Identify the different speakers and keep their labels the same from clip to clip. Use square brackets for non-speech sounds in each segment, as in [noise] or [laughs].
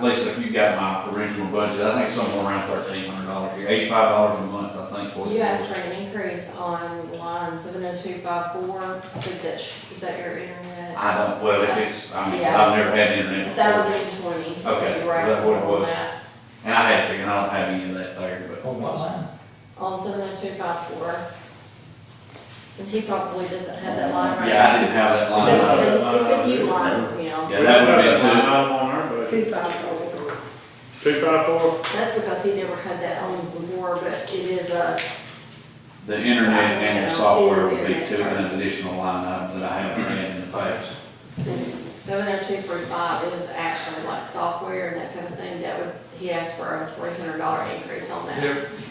Speaker 1: Lisa, if you got my original budget, I think somewhere around thirteen hundred dollars, eighty-five dollars a month, I think. for it
Speaker 2: You asked
Speaker 1: was.
Speaker 2: for an increase on line seven oh two five four, I think that's, is that your internet?
Speaker 1: I don't, well, if it's, I mean,
Speaker 2: Yeah.
Speaker 1: I've never had internet before,
Speaker 2: Thousand twenty, so
Speaker 1: Okay,
Speaker 2: you were
Speaker 1: that's
Speaker 2: asking
Speaker 1: what it
Speaker 2: for
Speaker 1: was.
Speaker 2: that,
Speaker 1: and I had figured, I don't have any of that there, but.
Speaker 3: On what line?
Speaker 2: on seven oh two five four. And he probably doesn't have that line right now.
Speaker 1: Yeah, I didn't have that line.
Speaker 2: Because
Speaker 1: item.
Speaker 2: it's a, it's a new line, you know,
Speaker 1: Yeah, that would've been two.
Speaker 4: on our budget.
Speaker 2: two five four.
Speaker 4: Two five four,
Speaker 2: That's because he never had that on before, but it is a,
Speaker 1: The internet and the software would be
Speaker 2: Yeah.
Speaker 1: two of an additional line item that I haven't had in the past.
Speaker 2: this seven oh two three five is actually like software and that kind of thing, that would, he asked for a three hundred dollar increase on that.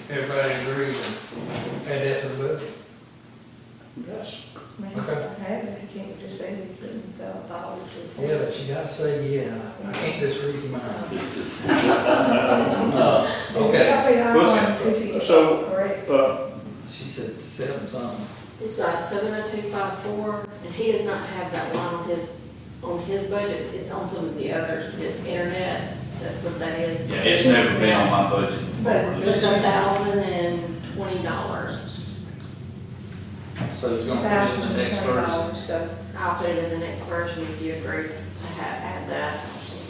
Speaker 3: Everybody agrees and add that to the budget.
Speaker 4: yes,
Speaker 5: Maybe I have it, I can't just say we couldn't go all the
Speaker 3: Yeah, but you gotta say, yeah, I can't just read
Speaker 1: [laughs]
Speaker 3: your mind. Uh, Okay,
Speaker 5: Probably I want two fifty,
Speaker 4: so,
Speaker 5: correct?
Speaker 4: uh,
Speaker 3: she said seven something.
Speaker 2: It's uh, seven oh two five four, and he does not have that line on his, on his budget, it's on some of the others, it's internet, that's what that is.
Speaker 1: Yeah, it's never been on my budget before.
Speaker 2: It's
Speaker 1: This
Speaker 2: a
Speaker 1: is-
Speaker 2: thousand and twenty dollars,
Speaker 3: So it's gonna be just
Speaker 5: Thousand
Speaker 3: the next
Speaker 5: twenty
Speaker 3: verse.
Speaker 5: dollars, so
Speaker 2: I'll put it in the next version if you agree to have, add that.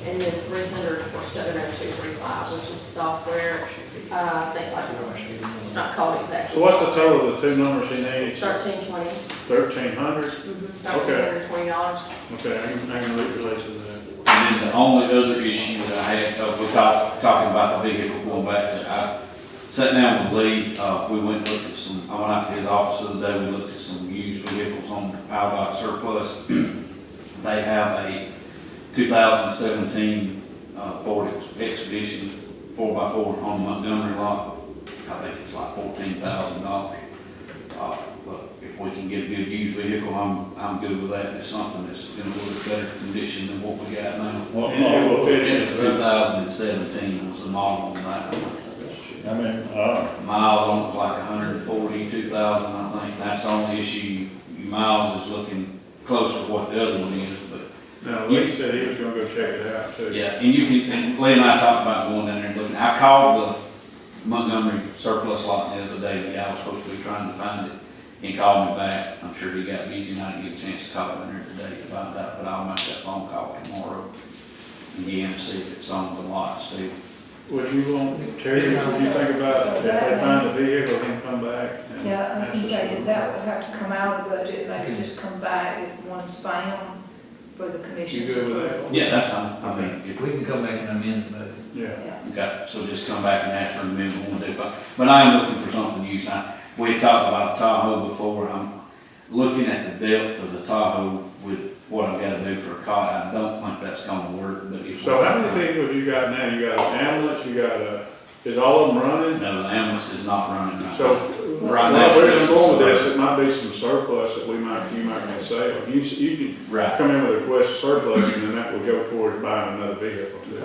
Speaker 2: And then three hundred for seven oh two three five, which is software, uh, I think like, it's not called exactly.
Speaker 4: so what's the total of the two numbers he needs?
Speaker 2: Thirteen twenty,
Speaker 4: Thirteen hundred,
Speaker 2: thirteen hundred twenty dollars.
Speaker 4: okay, I can, I can replace it then.
Speaker 1: And is the only other issue that I had, so we talked, talking about the vehicle going back, to- I sat down with Lee, uh, we went and looked at some, I went out to his office the other day, we looked at some used vehicles on Outback surplus. They have a two thousand seventeen, uh, Ford Ex- Expedition four x four on Montgomery lot. I think it's like fourteen thousand dollars. Uh, but if we can get a good used vehicle, I'm, I'm good with that, it's something that's in a little bit better condition than what we got now.
Speaker 6: What
Speaker 4: And it will
Speaker 6: model?
Speaker 4: fit
Speaker 1: It's
Speaker 4: in.
Speaker 1: two thousand and seventeen was the model on that one.
Speaker 6: I mean, uh,
Speaker 1: Miles on it was like 142,000, I think, that's the only issue, miles is looking close to what the other one is, but
Speaker 4: Now, Lee said he was gonna go check it out too.
Speaker 1: Yeah, and you can, and Lee and I talked about going down there and looking, I called the Montgomery surplus lot the other day, the guy was supposed to be trying to find it. He called me back, I'm sure he got busy, and I didn't get a chance to call him there today to find out, but I'll make that phone call tomorrow. Again, see if it's on the lot still.
Speaker 4: Would you want, Terry, what do you think about if they find the vehicle, then come back? and-
Speaker 5: Yeah, I was gonna say, that that would have to come out of the budget, like it just come by if one's found for the commission.
Speaker 4: You good with that?
Speaker 1: Yeah, that's fine, I mean, if
Speaker 3: We can come back and amend the budget.
Speaker 4: Yeah,
Speaker 1: Okay, so just come back and ask for an amendment one day, but, but I'm looking for something used, I, we had talked about Tahoe before, I'm looking at the depth of the Tahoe with what I've gotta do for a cot, I don't think that's gonna work, but if.
Speaker 4: so how many people have you got now? You got an ambulance, you got a, is all of them running?
Speaker 1: No, the ambulance is not running right
Speaker 4: So,
Speaker 1: now. Right now,
Speaker 4: well, we're
Speaker 1: it's
Speaker 4: just going with
Speaker 1: surplus.
Speaker 4: this, it might be some surplus that we might, you might can sell. You, s- you can
Speaker 1: Right,
Speaker 4: come in with a request surplus, and then that will go towards buying another vehicle too.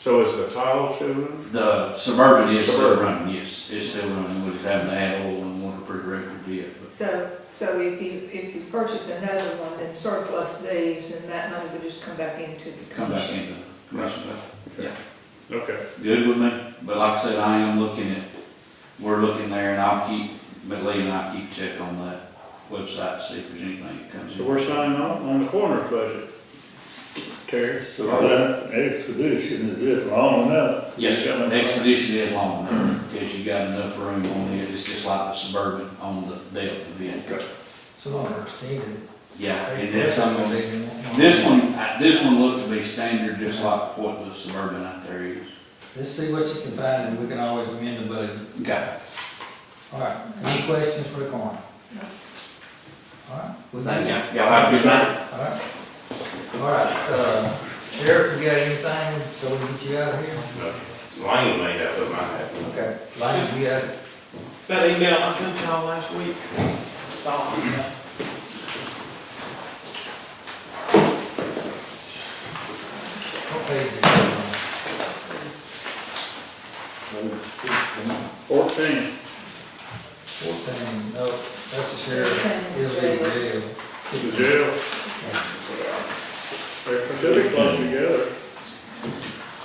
Speaker 4: So is the Tahoe still running?
Speaker 1: the Suburban is still
Speaker 4: Suburban.
Speaker 1: running, yes, it's still running, we just haven't had oil and water pre-record yet, but,
Speaker 5: So, so if you, if you purchase another one, then surplus these, and that money would just come back into the
Speaker 1: come back
Speaker 5: commission.
Speaker 1: into commission.
Speaker 4: Okay,
Speaker 1: good with me, but like I said, I am looking at, we're looking there and I'll keep, but Lee and I keep check on that website to see if there's anything that comes
Speaker 4: so
Speaker 1: in.
Speaker 4: we're signing on, on the coroner's budget. Terry?
Speaker 6: so that expedition is it long enough?
Speaker 1: Yes, sir. The Expedition is long enough, because you got enough room on it, it's just like the Suburban on the depth of it.
Speaker 3: Some of them are extended.
Speaker 1: Yeah, and then some of it, this one, I- this one looked to be standard, just like what the Suburban out there is.
Speaker 3: Just see what you can find and we can always amend the budget.
Speaker 1: Okay.
Speaker 3: All right, any questions for the coroner? All right. we
Speaker 1: Thank
Speaker 3: good.
Speaker 1: you. Y'all have a good night.
Speaker 3: All right, all right, uh, Sheriff, you got anything, so we can get you out of here?
Speaker 7: Lane made up of my head.
Speaker 3: Okay, Lonnie, you uh, got,
Speaker 8: That email I sent y'all last week. Thought about that.
Speaker 3: what page is it on?
Speaker 4: Fourteen.
Speaker 3: Fourteen, no, that's the sheriff, he'll be the jail.
Speaker 4: The jail,